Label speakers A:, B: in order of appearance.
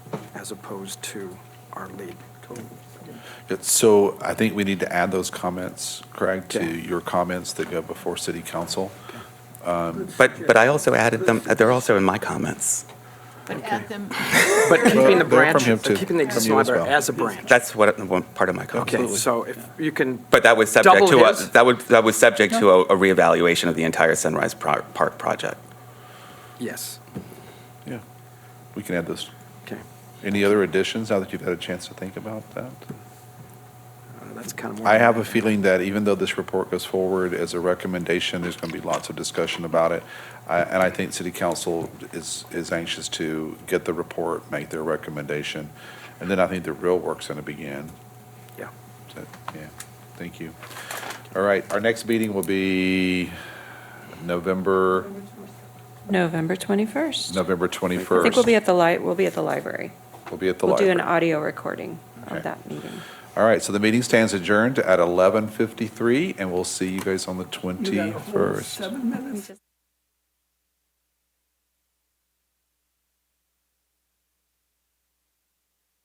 A: as opposed to our lead.
B: Yeah, So I think we need to add those comments, Craig, to
A: Okay.
B: your comments that go before city council.
C: But, but I also added them, uh, they're also in my comments.
D: Add them,
A: But keeping the
B: Well, they're
A: branch,
B: from him
A: but
B: too,
A: keeping the
B: from
A: existing
B: you as
A: library
B: well.
A: as a branch.
C: That's what, one part of my
A: Okay,
C: comments.
A: so if you can,
C: But that was subject
A: Double
C: to, a-
A: his?
C: that would, that was subject to a a reevaluation of the entire Sunrise Pro- Park project.
A: yes,
B: Yeah. We can add those.
A: okay.
B: Any other additions now that you've had a chance to think about that?
A: Uh, That's kind of.
B: I have a feeling that even though this report goes forward as a recommendation, there's going to be lots of discussion about it. I- And I think city council is, is anxious to get the report, make their recommendation. And then I think the real work's going to begin.
A: Yeah.
B: So, Yeah, thank you. All right, our next meeting will be November,
E: November 21st.
B: November
E: I think we'll be
B: 21st.
E: at the li, we'll be at the library.
B: We'll be at the
E: We'll do an
B: library.
E: audio recording
B: Okay.
E: of that meeting.
B: All right, so the meeting stands adjourned at 11:53, and we'll see you guys on the 21st.